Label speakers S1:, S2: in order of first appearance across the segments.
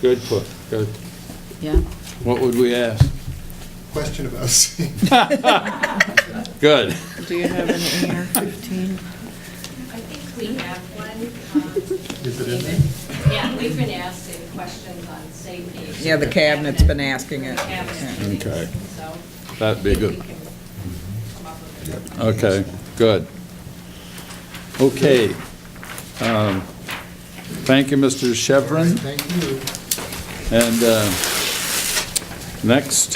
S1: Good put, good.
S2: yeah.
S1: What would we ask?
S3: Question about seeing.
S1: Good.
S2: Do you have an AR 15?
S4: I think we have one. um,
S3: Is it in there?
S4: David. Yeah, we've been asking questions on safety.
S5: Yeah, the cabinet's been asking it.
S4: The cabinet.
S1: Okay.
S4: So.
S1: That'd be
S4: I think
S1: good.
S4: we can come up with it.
S1: Okay, good. Okay. Um, Thank you, Mr. Chevron.
S3: Thank you.
S1: And uh, next,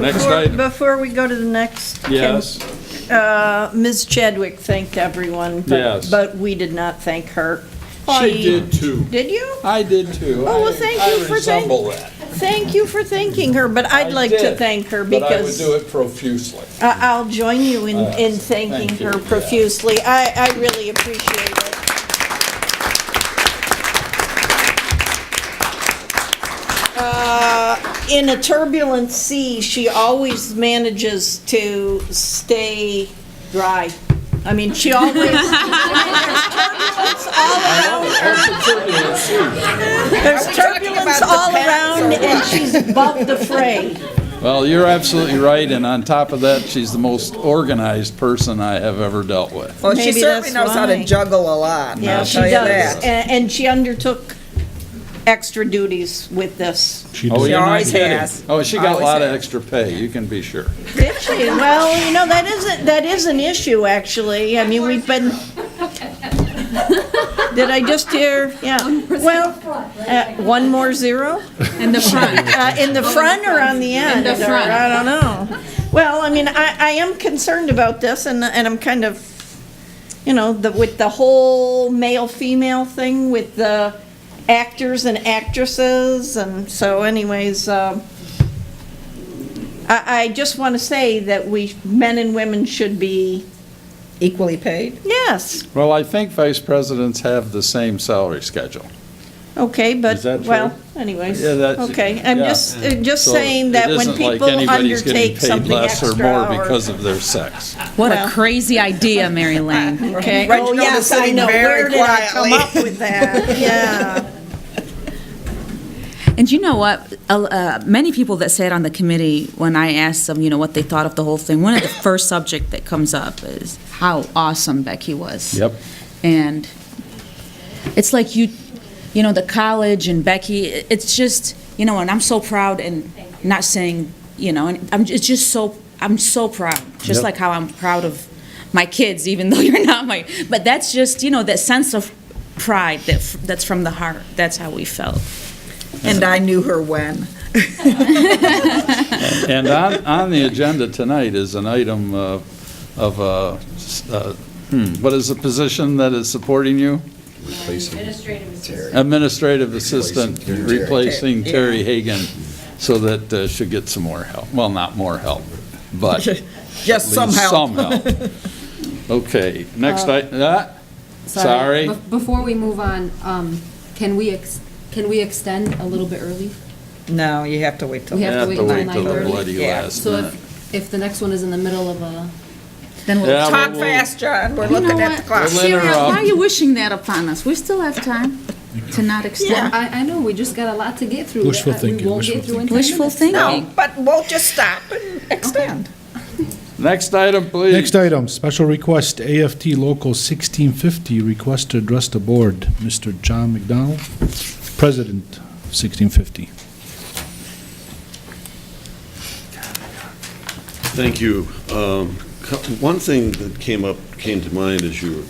S1: next
S6: Before-
S1: item,
S6: Before we go to the next. can-
S1: yes,
S6: uh, Ms. Chadwick thanked everyone, but-
S1: Yes.
S6: But we did not thank her.
S1: I
S6: She-
S1: did too.
S6: Did you?
S1: I did too.
S6: Oh, well, thank
S1: I-
S6: you for
S1: I resemble
S6: saying-
S1: that.
S6: Thank you for thanking her, but I'd
S1: I
S6: like to
S1: did,
S6: thank her
S1: But I would
S6: because
S1: do it profusely.
S6: I- I'll join you in,
S1: Uh,
S6: in
S1: thank
S6: thanking
S1: you,
S6: her
S1: yeah.
S6: profusely. I, I really appreciate it. Uh, In a turbulent sea, she always manages to stay dry. I mean, she always, I mean, there's turbulence all around her. There's turbulence all around, and she's above the fray.
S1: Well, you're absolutely right, and on top of that, she's the most organized person I have ever dealt with.
S5: Well, she
S6: Maybe
S5: certainly
S6: that's
S5: knows how to
S6: why.
S5: juggle a lot,
S6: Yeah,
S5: I'll
S6: she
S5: tell you
S6: does.
S5: that.
S6: And, and she undertook extra duties with this.
S1: Oh,
S5: She
S1: you're not
S5: always
S1: kidding.
S5: has.
S1: Oh, she got a
S5: Always
S1: lot of
S5: has.
S1: extra pay, you can be sure.
S6: Did she? Well, you know, that isn't, that is an issue, actually. I mean, we've been. Did I just hear? Yeah. Well, uh, one more zero?
S2: In the front.
S6: Uh, in the front or on the end?
S2: the
S6: or-
S2: front.
S6: I don't know. Well, I mean, I, I am concerned about this and, and I'm kind of, you know, the, with the whole male-female thing with the actors and actresses and so anyways, um, I, I just want to say that we, men and women should be,
S5: Equally paid?
S6: yes,
S1: Well, I think vice presidents have the same salary schedule.
S6: okay, but,
S1: Is that true?
S6: well, anyways,
S1: Yeah, that's-
S6: okay. I'm
S1: yeah.
S6: just, uh, just
S1: So
S6: saying that when people
S1: It isn't
S6: undertake something extra
S1: like anybody's getting paid less or more
S6: or-
S1: because of their sex.
S2: What
S6: Well.
S2: a crazy idea, Mary Lane.
S6: Okay.
S5: Reginald
S6: Oh,
S5: is
S6: yes, I
S5: sitting
S6: know.
S5: very
S6: Where did I come up
S5: quietly.
S6: with that? Yeah.
S2: And you know what? A- Uh, many people that sat on the committee, when I asked them, you know, what they thought of the whole thing, one of the first subject that comes up is how awesome Becky was.
S1: Yep.
S2: And it's like you, you know, the college and Becky. i- It's just, you know, and I'm so proud and not saying, you know, and I'm. It's just so I'm so proud. Just
S1: Yep.
S2: like how I'm proud of my kids, even though you're not my. But that's just, you know, that sense of pride that f- that's from the heart. That's how we felt.
S5: And I knew her when.
S1: And on, on the agenda tonight is an item uh, of, uh, s- uh, hmm, what is the position that is supporting you?
S4: Administrative assistant.
S1: Administrative assistant, replacing
S5: Terry.
S1: Terry Hagan, so that uh, she gets some more help. Well, not more help, but at
S5: Just
S1: least
S5: somehow.
S1: some help. Okay, next, I, ah, sorry.
S7: Bef- Before we move on, um, can we, ex- can we extend a little bit early?
S5: No, you have to wait till.
S7: We have to wait till
S1: till the
S7: 9:30.
S1: bloody
S5: Yeah.
S1: last
S7: So
S1: minute.
S7: if, if the next one is in the middle of a,
S2: Then we'll
S1: Yeah,
S5: Talk
S1: we'll-
S5: fast, John, we're looking at the clock.
S1: We'll Sarah, interrupt. why are you
S2: wishing that upon us? We still have time to not extend.
S7: I, I know, we just got a lot to get through.
S8: Wishful
S7: Uh,
S8: thinking,
S7: We won't
S8: wishful
S7: get through in 10
S2: Wishful
S7: minutes.
S2: thinking.
S5: No, but we'll just stop and extend.
S1: Next item, please.
S8: Next item, special request, AFT Local 1650, request to address the board. Mr. John McDonald, President, 1650.
S9: Thank you. Um, co- One thing that came up, came to mind is you,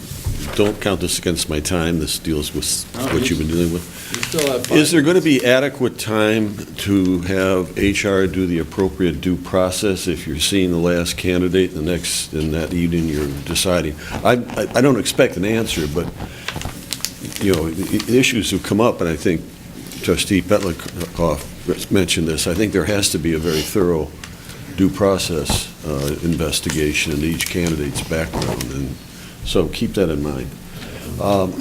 S9: don't count this against my time, this deals with what you've been dealing with.
S1: You still have five
S9: Is there going to be adequate time to have HR do the appropriate due process if you're seeing the last candidate the next, and that evening you're deciding? I, I- I don't expect an answer, but, you know, i- i- issues have come up, and I think trustee Petlikoff mentioned this. I think there has to be a very thorough due process uh, investigation into each candidate's background, and so keep that in mind. Um,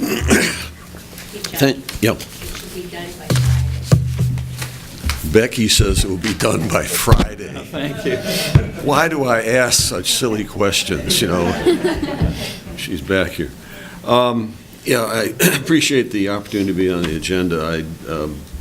S9: thank- Yep.
S4: It should be done by Friday.
S9: Becky says it will be done by Friday.
S1: Thank you.
S9: Why do I ask such silly questions, you know? She's back here. Um, Yeah, I appreciate the opportunity to be on the agenda. I um,